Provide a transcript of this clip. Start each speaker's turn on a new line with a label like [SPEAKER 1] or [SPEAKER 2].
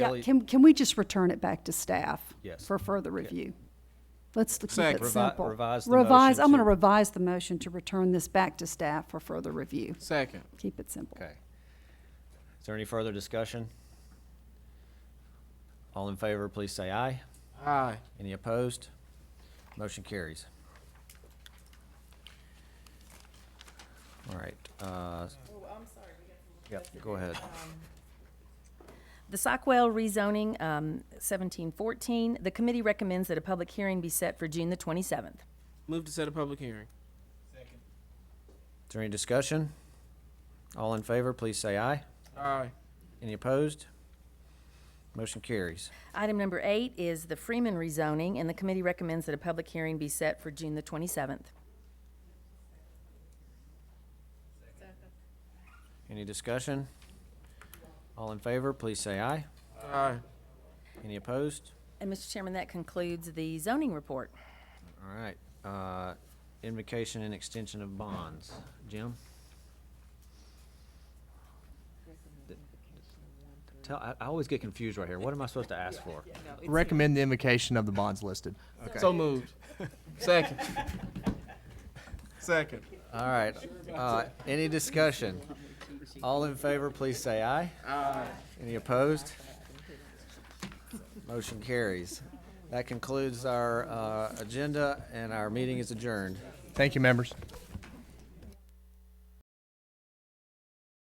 [SPEAKER 1] Yeah,
[SPEAKER 2] Ellie-
[SPEAKER 1] can, can we just return it back to staff?
[SPEAKER 2] Yes.
[SPEAKER 1] For further review? Let's keep it
[SPEAKER 3] Second.
[SPEAKER 2] Revi-
[SPEAKER 1] simple.
[SPEAKER 2] revise the
[SPEAKER 1] Revise,
[SPEAKER 2] motion
[SPEAKER 1] I'm gonna
[SPEAKER 2] to-
[SPEAKER 1] revise the motion to return this back to staff for further review.
[SPEAKER 3] Second.
[SPEAKER 1] Keep it simple.
[SPEAKER 2] Okay. Is there any further discussion? All in favor, please say aye.
[SPEAKER 3] Aye.
[SPEAKER 2] Any opposed? Motion carries. All right, uh,
[SPEAKER 4] Oh, I'm sorry, we got
[SPEAKER 2] yep,
[SPEAKER 4] some more questions.
[SPEAKER 2] go ahead.
[SPEAKER 4] The Sockwell rezoning, um, seventeen fourteen, the committee recommends that a public hearing be set for June the twenty-seventh.
[SPEAKER 3] Move to set a public hearing.
[SPEAKER 2] Is there any discussion? All in favor, please say aye.
[SPEAKER 3] Aye.
[SPEAKER 2] Any opposed? Motion carries.
[SPEAKER 4] Item number eight is the Freeman rezoning, and the committee recommends that a public hearing be set for June the twenty-seventh.
[SPEAKER 2] Any discussion? All in favor, please say aye.
[SPEAKER 3] Aye.
[SPEAKER 2] Any opposed?
[SPEAKER 4] And Mr. Chairman, that concludes the zoning report.
[SPEAKER 2] All right, uh, invocation and extension of bonds. Jim? Tell, I, I always get confused right here. What am I supposed to ask for?
[SPEAKER 5] Recommend the invocation of the bonds listed.
[SPEAKER 3] So moved. Second. Second.
[SPEAKER 2] All right, uh, any discussion? All in favor, please say aye. Aye. Any opposed? Motion carries. That concludes our, uh, agenda and our meeting is adjourned.
[SPEAKER 5] Thank you, members.